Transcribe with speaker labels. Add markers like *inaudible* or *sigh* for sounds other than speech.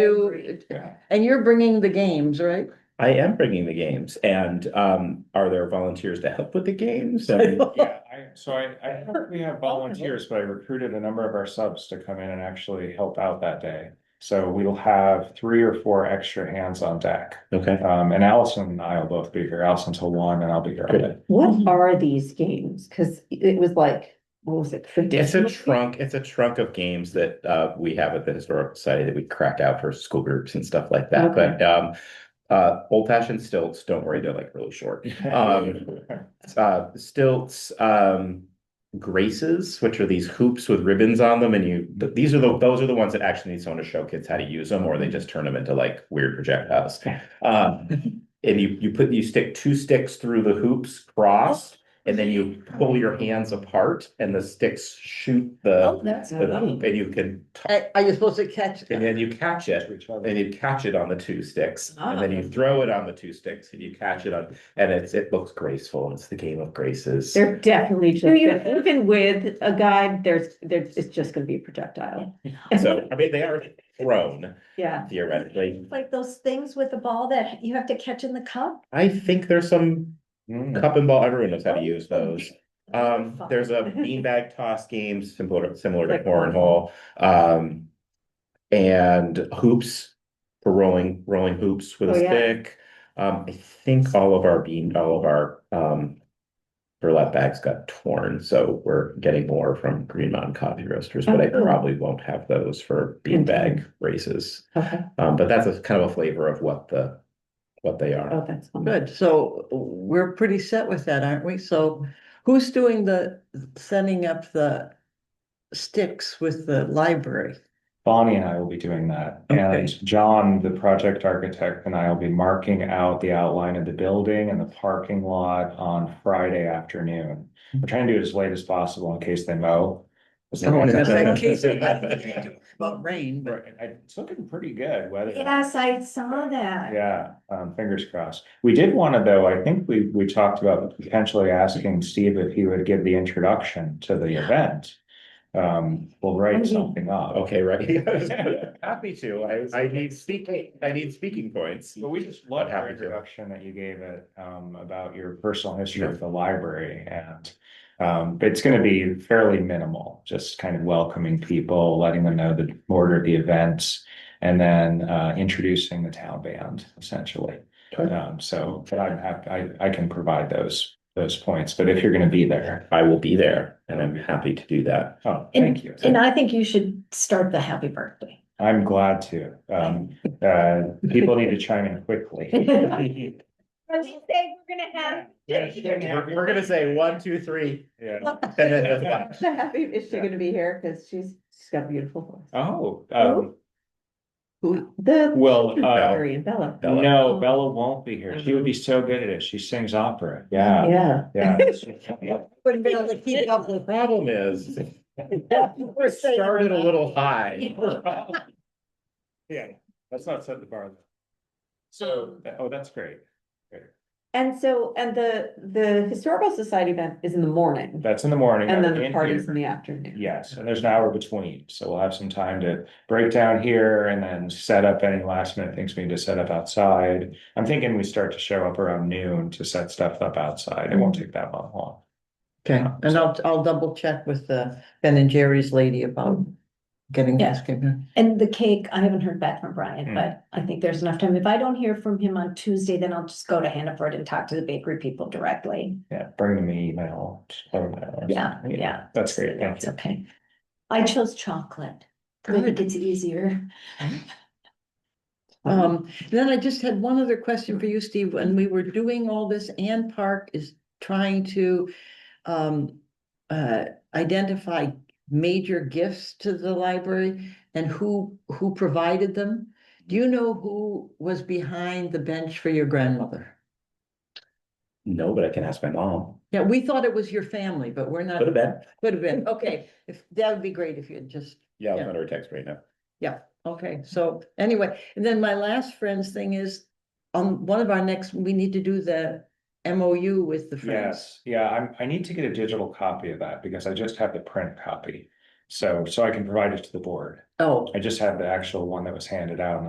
Speaker 1: to,
Speaker 2: Yeah.
Speaker 1: and you're bringing the games, right?
Speaker 2: I am bringing the games and um, are there volunteers to help with the games? I mean,
Speaker 3: Yeah, I, so I, I don't think we have volunteers, but I recruited a number of our subs to come in and actually help out that day. So we'll have three or four extra hands on deck.
Speaker 2: Okay,
Speaker 3: Um, and Allison and I will both be here. Allison till one and I'll be here. all day.
Speaker 1: Mhm.
Speaker 4: What are these games? Cause it was like, what was it?
Speaker 2: it's a
Speaker 4: traditional-
Speaker 2: trunk, it's a trunk of games that uh, we have at the historical society that we crack out for school groups and stuff like that,
Speaker 4: Okay.
Speaker 2: but um. Uh, old fashioned stilts, don't worry, they're like really short. Um, Uh, stilts, um. Graces, which are these hoops with ribbons on them and you, th- these are the, those are the ones that actually need someone to show kids how to use them or they just turn them into like weird projectiles.
Speaker 1: *laughs*
Speaker 2: Um, and you, you put, you stick two sticks through the hoops crossed and then you pull your hands apart and the sticks shoot the,
Speaker 4: Oh, that's.
Speaker 2: the hoop and you can,
Speaker 1: Are Uh, are you supposed to catch?
Speaker 2: and then you catch it
Speaker 3: To each other.
Speaker 2: and you catch it on the two sticks, and then you throw it on the two sticks, and you catch it on, and it's, it looks graceful, it's the game of graces.
Speaker 4: They're definitely just,
Speaker 1: you-
Speaker 4: even with a guide, there's, there's, it's just gonna be a projectile.
Speaker 2: So, I mean, they are thrown
Speaker 4: *laughs* Yeah.
Speaker 2: theoretically,
Speaker 5: Like those things with the ball that you have to catch in the cup?
Speaker 2: I think there's some
Speaker 3: Mm.
Speaker 2: cup and ball, everyone knows how to use *laughs* those. Um, there's *laughs*
Speaker 4: *laughs*
Speaker 2: a beanbag toss game similar, similar to
Speaker 4: Like
Speaker 2: cornhole, um. And hoops, for rolling, rolling hoops with a
Speaker 4: Oh, yeah.
Speaker 2: stick. Um, I think all of our bean, all of our, um. Burlap bags got torn, so we're getting more from Green Mountain Coffee Roasters, but I
Speaker 4: Oh, cool.
Speaker 2: probably won't have those for beanbag races.
Speaker 4: Okay.
Speaker 2: Um, but that's a kind of a flavor of what the, what they are.
Speaker 4: Oh, that's. fun. *laughs*
Speaker 1: Good, so we're pretty set with that, aren't we? So who's doing the, setting up the sticks with the library?
Speaker 3: Bonnie and I will be doing that.
Speaker 1: Okay.
Speaker 3: And John, the project architect, and I will be marking out the outline of the building and the parking lot on Friday afternoon. We're trying to do it as late as possible in case they mow. *laughs*
Speaker 1: In case they have anything About rain, but
Speaker 3: Right, and I- It's looking pretty good weather.
Speaker 5: Yes, I saw that.
Speaker 3: Yeah, um, fingers crossed. We did wanna though, I think we, we talked about potentially asking Steve if he would give the introduction to the event. Um, we'll write something up.
Speaker 2: Okay, right? Happy to, I, I need speaking, I need speaking points.
Speaker 3: Well, we just
Speaker 2: I'd
Speaker 3: love
Speaker 2: happy
Speaker 3: your
Speaker 2: to.
Speaker 3: introduction that you gave it, um, about your personal history of the library and. Um, but it's gonna be fairly minimal, just kind of welcoming people, letting them know the order of the events. And then, uh, introducing the town band essentially.
Speaker 2: Okay.
Speaker 3: Um, so, but I'm happy, I, I can provide those, those points, but if you're gonna be there,
Speaker 2: I will be there and I'm happy to do that.
Speaker 3: oh, thank you.
Speaker 5: And I think you should start the happy birthday.
Speaker 3: I'm glad to, um, uh, people need to chime in quickly.
Speaker 5: *laughs* We're gonna have.
Speaker 2: We're we're gonna say one, two, three.
Speaker 3: Yeah.
Speaker 2: and then that's
Speaker 4: *laughs*
Speaker 2: fine.
Speaker 4: So happy, is she gonna be here? Cause she's, she's got a beautiful voice.
Speaker 3: Oh, um,
Speaker 1: who,
Speaker 4: The.
Speaker 3: Well, uh,
Speaker 4: Mary and Bella.
Speaker 2: Bella.
Speaker 3: no, Bella won't be here. She would be so good at it. She sings opera. Yeah,
Speaker 4: Yeah.
Speaker 3: yeah.
Speaker 4: *laughs*
Speaker 1: wouldn't be able to keep up
Speaker 2: The *laughs*
Speaker 1: with. *laughs*
Speaker 2: problem is, we started a little high.
Speaker 3: Yeah, let's not set the bar. So, oh, that's great.
Speaker 4: And so, and the, the historical society event is in the morning
Speaker 3: That's in the morning.
Speaker 4: and then the
Speaker 3: In
Speaker 4: party's
Speaker 3: here.
Speaker 4: in the afternoon.
Speaker 3: Yes, and there's an hour between, so we'll have some time to break down here and then set up any last minute things we need to set up outside. I'm thinking we start to show up around noon to set stuff up outside. It won't
Speaker 4: Mm-hmm.
Speaker 3: take that long.
Speaker 1: Okay, and I'll, I'll double check with the Ben and Jerry's lady about getting this. given.
Speaker 5: And the cake, I haven't heard back from Brian,
Speaker 3: Hmm.
Speaker 5: but I think there's enough time. If I don't hear from him on Tuesday, then I'll just go to Hannaford and talk to the bakery people directly.
Speaker 3: Yeah, bring them an email. just let them know.
Speaker 5: Yeah, yeah.
Speaker 3: That's great. Thank
Speaker 5: It's
Speaker 3: you.
Speaker 5: okay. I chose chocolate. I think it's easier.
Speaker 1: *laughs* Um, then I just had one other question for you, Steve. When we were doing all this, Ann Park is trying to um uh identify major gifts to the library and who who provided them. Do you know who was behind the bench for your grandmother?
Speaker 2: No, but I can ask my mom.
Speaker 1: Yeah, we thought it was your family, but we're not,
Speaker 2: Go to bed.
Speaker 1: could have been, okay, if, that would be great if you had just
Speaker 2: Yeah, I'll
Speaker 1: Yeah.
Speaker 2: send her a text right now.
Speaker 1: Okay, so anyway, and then my last friends thing is, on one of our next, we need to do the MOU with the friends.
Speaker 3: Yes, yeah, I'm, I need to get a digital copy of that because I just have the print copy. So, so I can provide it to the board.
Speaker 1: Oh,
Speaker 3: I just have the actual one that was handed out and I